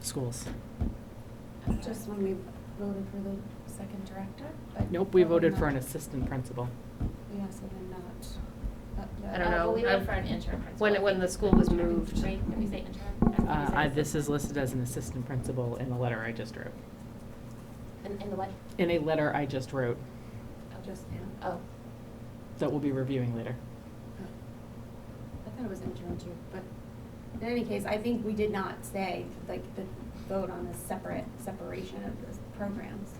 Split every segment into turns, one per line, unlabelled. schools.
Just when we voted for the second director, but.
Nope, we
probably
voted for an
not.
assistant principal.
Yeah, so then not. uh,
I don't know.
Uh, but we
I've-
voted for an interim principal.
When, when the school was moved.
Right, did we say interim?
Uh, I, this is listed as an assistant principal in the letter I just wrote.
In, in the what?
In a letter I just wrote
I'll Just, Uh, yeah.
Oh,
that we'll be reviewing later.
I thought it was interim too, but in any case, I think we did not say, like, the vote on the separate, separation of the programs.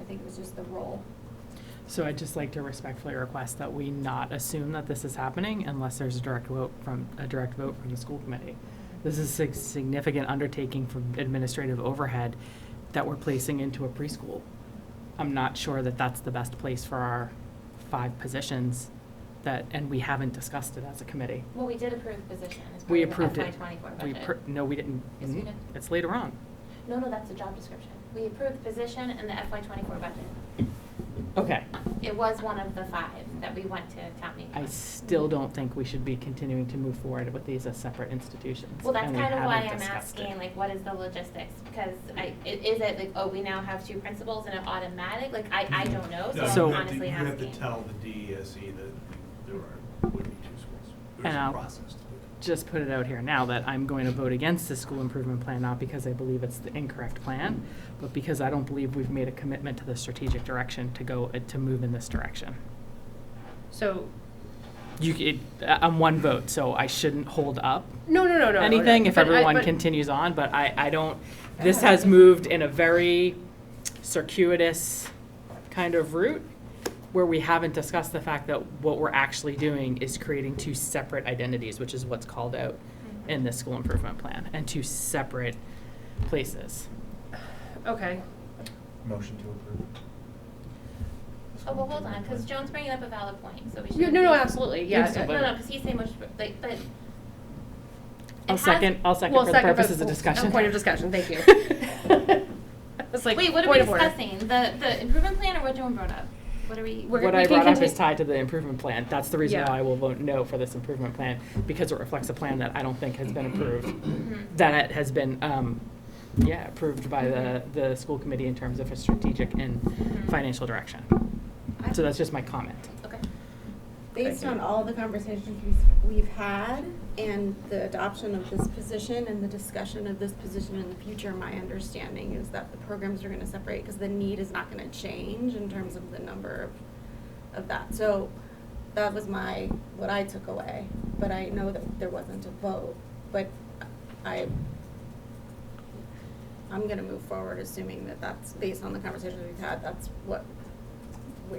I think it was just the role.
So I'd just like to respectfully request that we not assume that this is happening unless there's a direct vote from, a direct vote from the school committee. This is a significant undertaking from administrative overhead that we're placing into a preschool. I'm not sure that that's the best place for our five positions that, and we haven't discussed it as a committee.
well, we did approve position as part
We
of the
approved
FY
it.
twenty-four
We
budget.
per- No, we didn't. Mm-hmm.
Yes, we did.
It's later on.
No, no, that's the job description. We approved position and the FY twenty-four budget.
Okay.
It was one of the five that we went to town meeting.
I
on.
still don't think we should be continuing to move forward with these as separate institutions.
Well, that's
and we
kind of why
haven't
I'm
discussed it.
asking, like, what is the logistics? Because I, i- is it like, oh, we now have two principals and it automatic? Like, I, I don't know,
No,
so
So-
I'm
you have to-
honestly
You have
asking.
to tell the DESE E that there are, would be two schools. There's
And
a
I'll-
process to do
just put it out here now that I'm going to vote against the school improvement plan, not because I believe it's the incorrect plan, but because I don't believe we've made a commitment to the strategic direction to go, uh, to move in this direction.
So,
You, c- it, I- I'm one vote, so I shouldn't hold up
no, no, no, no, no.
anything if
but I-
everyone
but-
continues on, but I, I don't, this has moved in a very circuitous kind of route where we haven't discussed the fact that what we're actually doing is creating two separate identities, which is what's called out in the school improvement plan, and two separate places.
Okay,
it. Motion to approve.
Oh, well, hold on, because Joan's bringing up a valid point, so we should.
no, no, no, absolutely, yeah.
Yes,
I-
No, no, because he's saying much, like, but. it
I'll
has-
second, I'll second
Well,
for the
second, but-
purposes of
a
discussion.
Point of discussion, thank you. It's like,
Wait, what are we
point of order.
discussing? The, the improvement plan or what Joan brought up? What are we?
We're-
What
we
I
can
brought up is
continue-
tied to the improvement plan. That's the reason
Yeah.
why I will vote no for this improvement plan, because it reflects a plan that I don't think has been approved.
Mhm.
that it has been, um, yeah, approved by the, the school committee in terms of a strategic and
Mm-hmm.
Mhm.
financial direction.
I-
So that's just my comment.
Okay.
Based on all the conversations we've, we've had and the adoption of this position and the discussion of this position in the future, my understanding is that the programs are gonna separate because the need is not gonna change in terms of the number of, of that. So that was my, what I took away, but I know that there wasn't a vote, but I, I'm gonna move forward assuming that that's, based on the conversations we've had, that's what we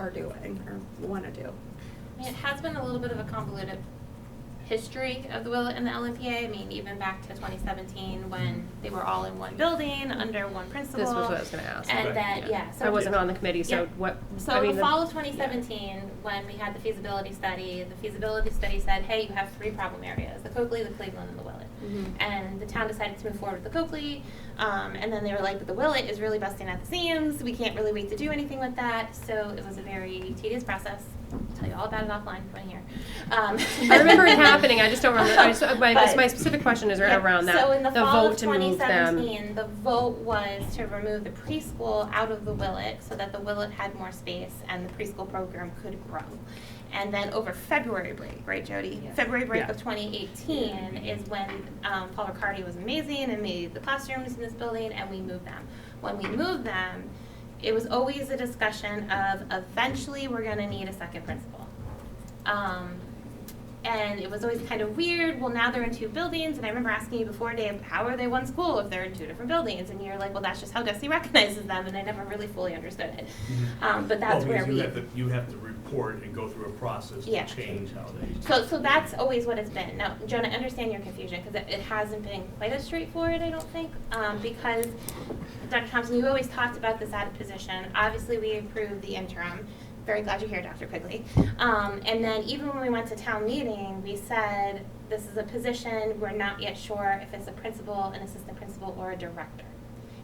are doing or wanna do.
I mean, it has been a little bit of a convoluted history of the Willet and the LMPA. I mean, even back to 2017 when they were all in one building under one principal.
This was what I was gonna ask.
And
Right.
then, Uh, yeah, so.
I wasn't on the committee, so
Yeah.
what, I
So
mean.
the fall of 2017, when we had the feasibility study, the feasibility study said, hey, you have three problem areas, the Coakley, the Cleveland, and the Willet.
Mm-hmm.
And the town decided to move forward with the Coakley, um, and then they were like, but the Willet is really busting at the seams, we can't really wait to do anything with that, so it was a very tedious process. I'll Tell you all about it offline if you want to hear. Um,
I remember it happening, I just don't remember, I just, my,
But-
my specific question is
Yep.
around that,
So in the
the
fall of
vote to move them.
2017, the vote was to remove the preschool out of the Willet so that the Willet had more space and the preschool program could grow. And then over February break, right, Jody? February break
Yeah.
of 2018 is when um, Paul Riccardi was amazing and made the classrooms in this building, and we moved them. When we moved them, it was always a discussion of eventually we're going to need a second principal. Um, and it was always kind of weird. Well, now they're in two buildings, and I remember asking you before, Dave, how are they one school if they're in two different buildings? And you're like, well, that's just how Desi recognizes them, and I never really fully understood it. Um, but that's
Mm-hmm.
where
Well, because
we.
you have to, you have to report and go through a process
Yeah.
to change how they.
So, so that's always what it's been. Now, Joan, I understand your confusion because it, it hasn't been quite as straightforward, I don't think, um, because Dr. Thompson, you always talked about this added position. Obviously, we approved the interim. Very glad you're here, Dr. Quigley. Um, and then even when we went to town meeting, we said, this is a position, we're not yet sure if it's a principal, an assistant principal, or a director.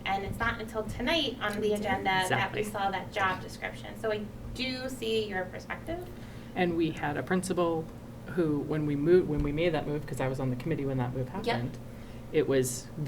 And it's not until tonight on the agenda that we
Exactly.
saw that job description. So I do see your perspective.
And we had a principal who, when we moved, when we made that move, because I was on the committee when that move happened, it was